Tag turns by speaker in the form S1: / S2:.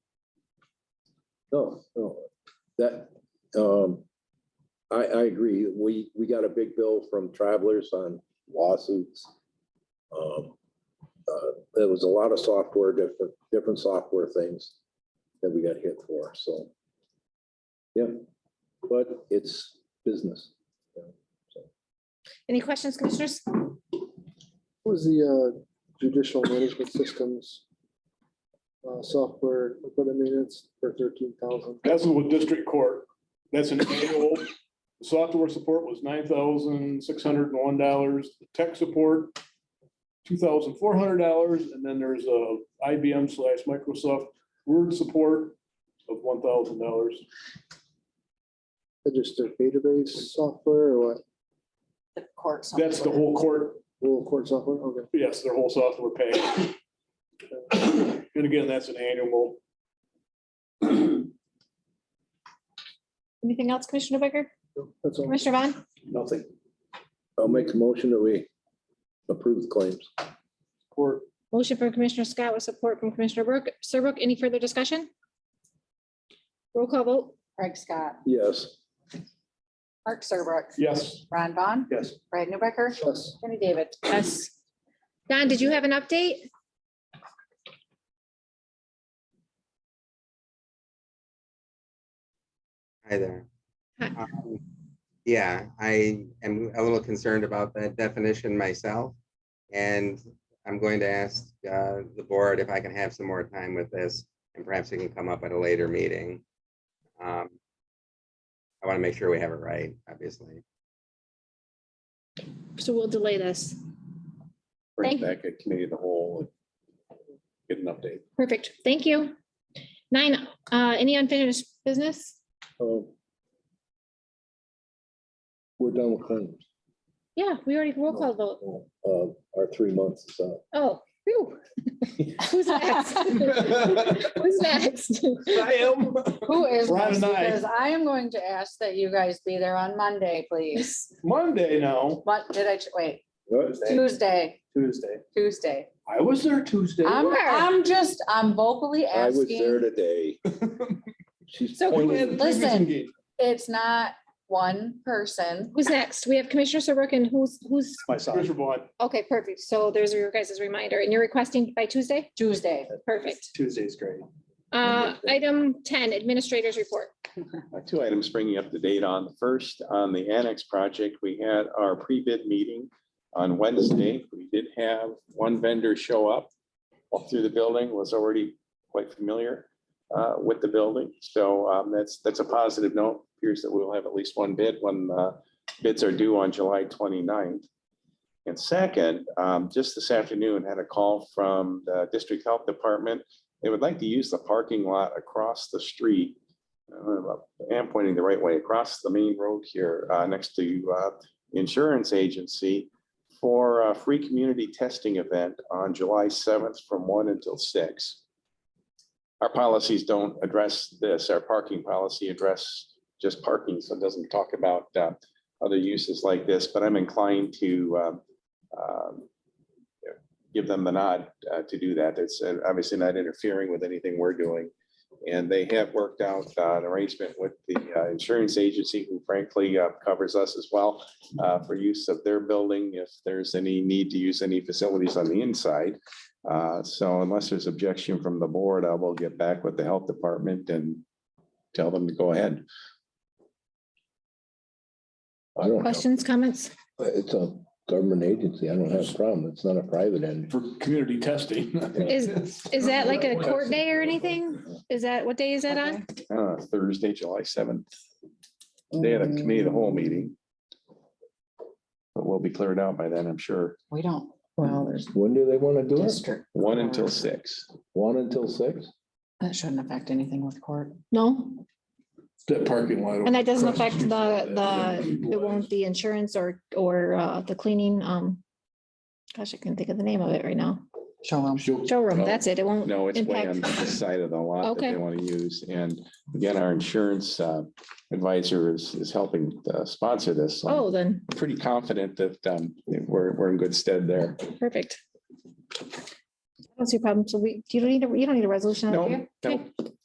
S1: No, no, that, um, I, I agree. We, we got a big bill from travelers on lawsuits. Um, uh, there was a lot of software, different, different software things that we got hit for, so. Yeah, but it's business.
S2: Any questions, commissioners?
S3: What was the uh, judicial management systems uh, software equipment maintenance for thirteen thousand?
S4: That's with district court. That's an annual. The Software support was nine thousand six hundred and one dollars, tech support, two thousand four hundred dollars, and then there's a IBM slash Microsoft Word support of one thousand dollars.
S3: Just their database software or what?
S5: the court.
S4: That's the whole court,
S3: Little court software? Okay.
S4: yes, their whole software package. And again, that's an annual.
S2: Anything else, Commissioner Bicker?
S3: That's all.
S2: Commissioner Vaughn?
S1: Nothing. I'll make a motion that we approve the claims.
S4: Court,
S2: Motion for Commissioner Scott with support from Commissioner Burke. Sir Brooke, any further discussion? Roll call vote.
S5: Craig Scott,
S1: Yes,
S5: Mark Serbrook,
S4: yes.
S5: Ron Vaughn,
S4: Yes.
S5: Brad Newbecker,
S3: Yes.
S5: Jenny David.
S2: Yes. Don, did you have an update?
S6: Hi there.
S2: Hi.
S6: Um, Yeah, I am a little concerned about that definition myself. And I'm going to ask uh, the board if I can have some more time with this and perhaps it can come up at a later meeting. Um, I want to make sure we have it right, obviously.
S2: So we'll delay this.
S7: bring
S2: Thank-
S7: it back a committee of the whole. and Get an update.
S2: Perfect. Thank you. Nine, uh, any unfinished business?
S1: um, we're done with claims.
S2: Yeah, we already roll call vote.
S1: Uh, our three months is up.
S2: Oh, phew. Who's next? Who's next?
S5: Who is
S4: Ron
S5: next?
S4: and I.
S5: Because I am going to ask that you guys be there on Monday, please.
S4: Monday now.
S5: What, did I, ch- wait,
S1: Tuesday.
S5: Tuesday,
S4: Tuesday.
S5: Tuesday.
S4: I was there Tuesday.
S5: I'm,
S2: were.
S5: I'm just, I'm vocally
S1: I was there
S5: asking.
S1: today. She's
S2: So who
S1: pointing.
S5: Listen. It's not one person.
S2: Who's next? We have Commissioner Sir Brooke and who's, who's,
S7: My son.
S4: Commissioner Vaughn,
S2: okay, perfect. So there's your guys' reminder and you're requesting by Tuesday?
S5: Tuesday.
S2: Perfect.
S7: Tuesday's great.
S2: Uh, item ten, administrators report.
S7: Uh, Two items bringing up the date on. The First, on the annex project, we had our pre-bid meeting on Wednesday. We did have one vendor show up. Walked through the building, was already quite familiar uh, with the building. So um, that's, that's a positive note. Appears that we'll have at least one bid when uh, bids are due on July 29th. And second, um, just this afternoon, had a call from the District Health Department. They would like to use the parking lot across the street uh, I am pointing the right way, across the main road here, uh, next to uh, the Insurance Agency for a free community testing event on July 7th from 1 until 6. Our policies don't address this. Our parking policy address just parking, so it doesn't talk about uh, other uses like this, but I'm inclined to um, um, give them the nod uh, to do that. It's uh, obviously not interfering with anything we're doing. And they have worked out uh, an arrangement with the uh, insurance agency, who frankly uh, covers us as well, uh, for use of their building if there's any need to use any facilities on the inside. Uh, So unless there's objection from the board, I will get back with the health department and tell them to go ahead.
S1: I don't know.
S2: Questions, comments?
S1: It's a government agency. I don't have a problem. It's not a private entity.
S4: for community testing.
S2: Is, is that like a court day or anything? Is that, what day is that on?
S7: Uh, Thursday, July seventh. They had a committee of the whole meeting. But we'll be cleared out by then, I'm sure.
S5: We don't, well, there's
S1: When do they want to do it?
S5: district.
S7: One until six.
S1: One until six?
S5: That shouldn't affect anything with court.
S2: No,
S4: That parking lot.
S2: and that doesn't affect the, the, it won't the insurance or, or, uh, the cleaning, um, gosh, I can't think of the name of it right now.
S5: Show them.
S2: Showroom, that's it. It won't.
S7: No, it's way on
S2: impact-
S7: the side of the lot that
S2: Okay.
S7: they want to use. And again, our insurance uh, advisor is, is helping uh, sponsor this. So I'm
S2: Oh, then,
S7: Pretty confident that um, we're, we're in good stead there.
S2: perfect. I don't see a problem. So we, you don't need, a- you don't need a resolution. out
S7: No,
S2: here?
S7: no.
S2: Okay.